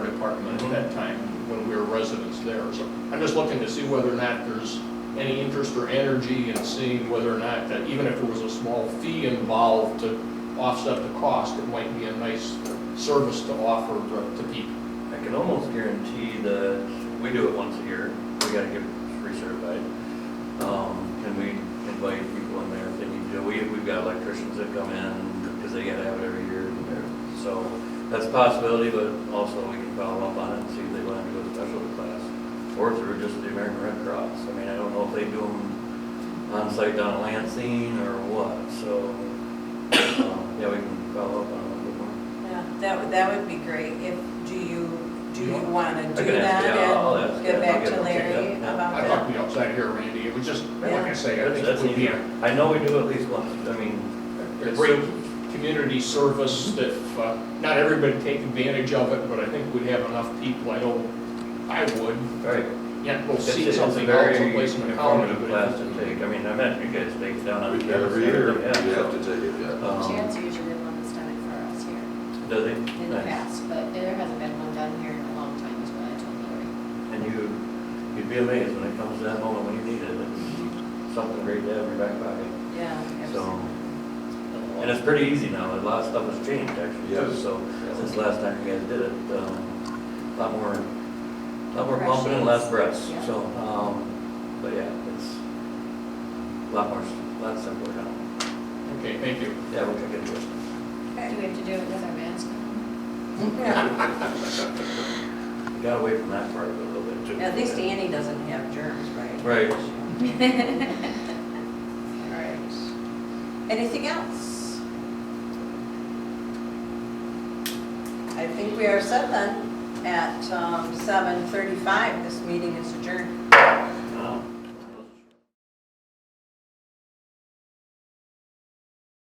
residents there. So I'm just looking to see whether or not there's any interest or energy in seeing whether or not that even if there was a small fee involved to offset the cost, it might be a nice service to offer to- to people. I can almost guarantee that, we do it once a year, we gotta get recertified. Um, can we invite people in there if they need to? We, we've got electricians that come in, because they gotta have it every year. and they're- So, that's a possibility, but also we can follow up on it and see if they want to go to special class. Or through just the American Red Cross, I mean, I don't know if they do them on site down at Lansing or what, so, um, yeah, we can follow up on it a little more. Yeah, that would, that would be great if, do you, do you wanna I do can ask, that yeah, I'll ask, and yeah, get back I'll to get- I'll check Larry that, yeah. I about talked it? to you outside here, Randy, it was just, like I Yeah. say, I That's, think that's it would be a easy. I know we do at least once, I mean, a great community service that uh, not everybody take advantage of it, but I think we'd have enough people, I know I would, very. yet we'll It's a- see it's a something else very someplace in the county. informative but- Class to take, I mean, I imagine you guys take it down on. We- campus Every year, yeah, we have to so, take it, yeah. um, Chad's usually the one that's done it for us here Does he? in the Nice. past, but there hasn't been one done here in a long time, is what I told Lori. And you, you'd be amazed when it comes to that moment when you need it, it's something great to have in your back pocket. Yeah. So, and it's pretty easy now, a lot of stuff has changed actually, too, Yes. so, since last time you guys did it, um, a lot more, a lot more pumping and less breaths, Yeah. so, um, but yeah, it's a lot more, a lot simpler now. Okay, thank you. Yeah, we'll check into it. Do we have to do it with our mask on? Yeah, We Got away from that part a little bit too. At least Annie doesn't have germs, right? Right. All right. Anything else? um, I think we are set then at seven thirty-five. This meeting is adjourned.